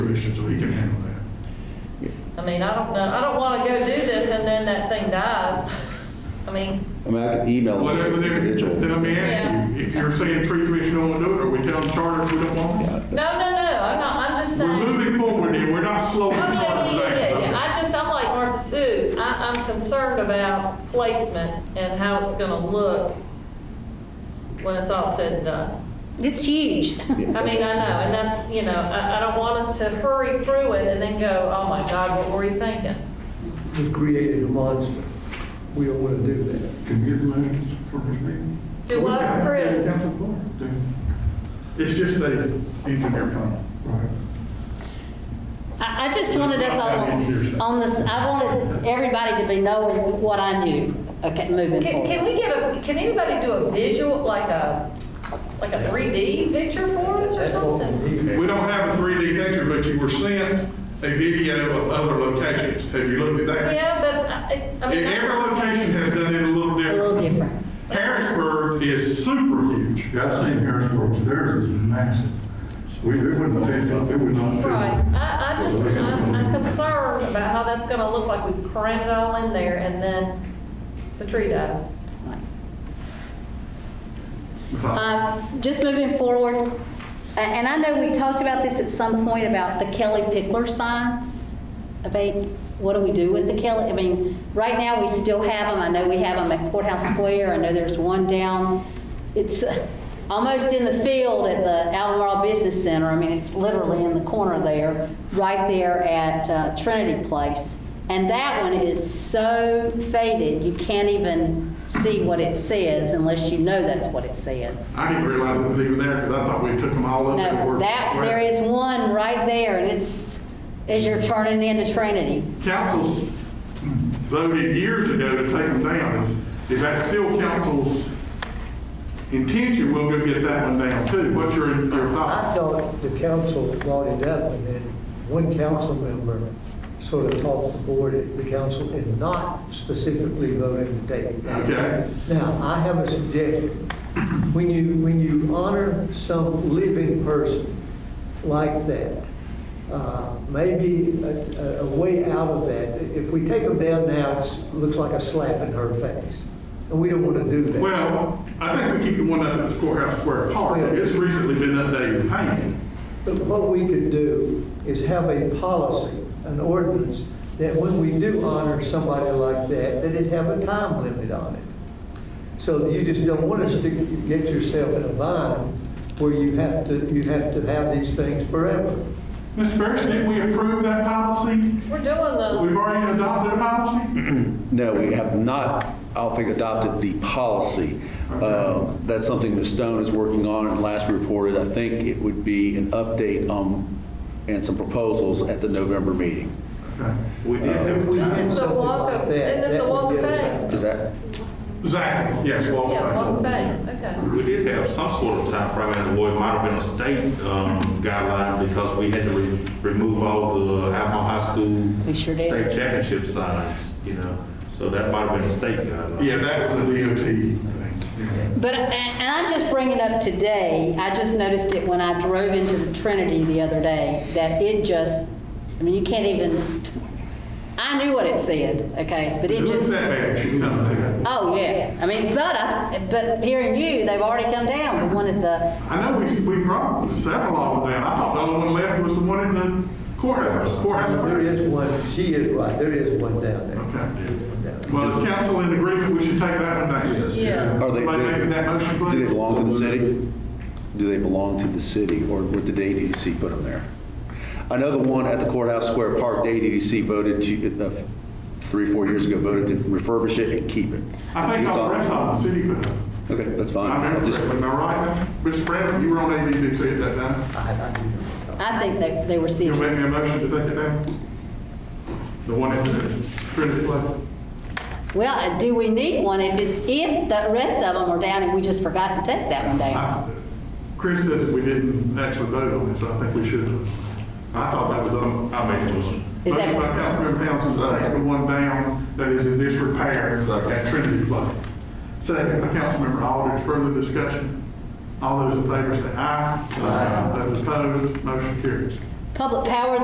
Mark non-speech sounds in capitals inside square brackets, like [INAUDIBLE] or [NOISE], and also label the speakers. Speaker 1: position, so he can handle that.
Speaker 2: I mean, I don't know, I don't want to go do this and then that thing dies. I mean,
Speaker 3: I mean, I could email
Speaker 1: Well,
Speaker 3: them
Speaker 1: then,
Speaker 3: individual.
Speaker 1: then- then let me
Speaker 2: Yeah.
Speaker 1: ask you, if you're saying tree commission don't want to do it, are we telling charter we don't want it?
Speaker 2: no, no, no, I'm not, I'm just
Speaker 1: We're [LAUGHS]
Speaker 2: saying.
Speaker 1: moving forward here, we're not
Speaker 2: Oh,
Speaker 1: slowing
Speaker 2: yeah,
Speaker 1: charter
Speaker 2: yeah,
Speaker 1: down.
Speaker 2: yeah, yeah, yeah. I just, I'm like Martha Sue, I, I'm concerned about placement and how it's gonna look when it's all said and done.
Speaker 4: It's huge.
Speaker 2: I mean, I know, and that's, you know, I, I don't want us to hurry through it and then go, oh my God, what were you thinking?
Speaker 5: We created a monster. We don't want to do that.
Speaker 1: Can you get motions for this meeting?
Speaker 2: Do what, Chris?
Speaker 1: It's just a engineer comment.
Speaker 4: I, I just wanted us all on this, I wanted everybody to be knowing what I knew, okay, moving
Speaker 2: Can,
Speaker 4: forward.
Speaker 2: can we get a, can anybody do a visual, like a, like a 3D picture for us or something?
Speaker 1: We don't have a 3D picture, but you were sent a video of other locations. Have you looked at that?
Speaker 2: Yeah, but I- it's, I mean. I-
Speaker 1: Every location has done it a little
Speaker 4: A little
Speaker 1: different.
Speaker 4: different.
Speaker 1: Harrisburg is super huge.
Speaker 6: Yeah, I've seen Harrisburg, theirs is massive. We, it wouldn't fit, it would not fit.
Speaker 2: Right, I, I just, I'm I'm concerned about how that's gonna look like we crammed it all in there and then the tree dies.
Speaker 4: Um, Just moving forward, a- and I know we talked about this at some point about the Kelly Pickler signs. About what do we do with the Kelly? I mean, right now, we still have them. I know we have them at Courthouse Square. I know there's one down, it's uh, almost in the field at the Albemarle Business Center. I mean, it's literally in the corner there, right there at uh, Trinity Place. And that one is so faded, you can't even see what it says unless you know that's what it says.
Speaker 1: I didn't realize it was even there because I thought we took them all up. and
Speaker 4: No,
Speaker 1: were-
Speaker 4: that, there is one right there, and it's, as you're turning into Trinity.
Speaker 1: Councils voted years ago to take them down. Is, is that still council's intention? We'll go get that one down too. What's your, your
Speaker 5: I
Speaker 1: thought?
Speaker 5: thought the council brought it up, and then one council member sort of talked the board at the council and not specifically voted to take it down.
Speaker 1: Okay.
Speaker 5: Now, I have a suggestion. When you, when you honor some living person like that, uh, maybe a, a- a way out of that, if we take them down now, it's- it looks like a slap in her face, and we don't want to do that.
Speaker 1: Well, I think we keep the one up at the courthouse square
Speaker 6: Oh,
Speaker 1: park. It's recently been updated and painted.
Speaker 5: But what we could do is have a policy, an ordinance, that when we do honor somebody like that, that it have a time limit on it. So you just don't want us to get yourself in a bind where you have to, you have to have these things forever.
Speaker 1: Mr. Ferris, didn't we approve that policy?
Speaker 2: We're doing the,
Speaker 1: We've already adopted a policy?
Speaker 3: No, we have not, I don't think, adopted the policy. Um, That's something Ms. Stone is working on, and last we reported, I think it would be an update um, and some proposals at the November meeting.
Speaker 1: Okay.
Speaker 6: We did.
Speaker 5: If we
Speaker 2: This
Speaker 5: did
Speaker 2: is the
Speaker 5: something
Speaker 2: Wonka-
Speaker 5: like that,
Speaker 2: isn't this the
Speaker 5: that would
Speaker 2: Wonka
Speaker 5: get us
Speaker 2: thing?
Speaker 5: out.
Speaker 3: Is that,
Speaker 1: Exactly, yes, Walker
Speaker 2: yeah, one
Speaker 1: Bank.
Speaker 2: thing, okay.
Speaker 7: We did have some sort of time frame, and it might have been a state um, guideline because we had to re- remove all the Alamo High School.
Speaker 4: We sure did.
Speaker 7: State championship signs, you know, so that might have been a state guideline.
Speaker 1: Yeah, that was a DOT thing. yeah.
Speaker 4: But, and and I'm just bringing up today, I just noticed it when I drove into the Trinity the other day, that it just, I mean, you can't even, I knew what it said, okay, but
Speaker 1: It
Speaker 4: it
Speaker 1: looks
Speaker 4: just,
Speaker 1: that bad, it should come to that.
Speaker 4: oh, yeah. I mean, but, I- but hearing you, they've already come down, the one at the,
Speaker 1: I know we, we brought several of them down. I thought the only one left was the one in the courthouse, courthouse.
Speaker 5: There
Speaker 1: square.
Speaker 5: is one, she is right, there is one down
Speaker 1: Okay.
Speaker 5: there. One down there.
Speaker 1: Well, is council in agreement, we should take that one down.
Speaker 2: Yes.
Speaker 3: are Oh, they,
Speaker 1: Somebody making that motion, please?
Speaker 3: do they belong to the city? Do they belong to the city, or would the ADDC put them there? I know the one at the Courthouse Square Park, the ADDC voted to, uh, three, four years ago, voted to refurbish it and keep it.
Speaker 1: I think all the rest of them, the city put up.
Speaker 3: Okay, that's fine.
Speaker 1: I remember
Speaker 3: Uh, Just-
Speaker 1: correctly, am I right, Mr. Bradley? You were on ADDC at that time.
Speaker 4: I think they, they were
Speaker 1: You'll
Speaker 4: sitting.
Speaker 1: make me a motion to take it down? The one at the Trinity Place?
Speaker 4: Well, uh, do we need one if it's, if the rest of them are down and we just forgot to take that one down?
Speaker 1: I- Chris said that we didn't actually vote on it, so I think we should have. I thought that was, um, I made a motion.
Speaker 4: Is that-
Speaker 1: Motion by Councilmember Townsend, to take the one down that is in disrepair at Trinity Place. Second by Councilmember Aldridge, further discussion. All those in favor say aye. Aye. Those opposed, motion carries.
Speaker 4: Public Power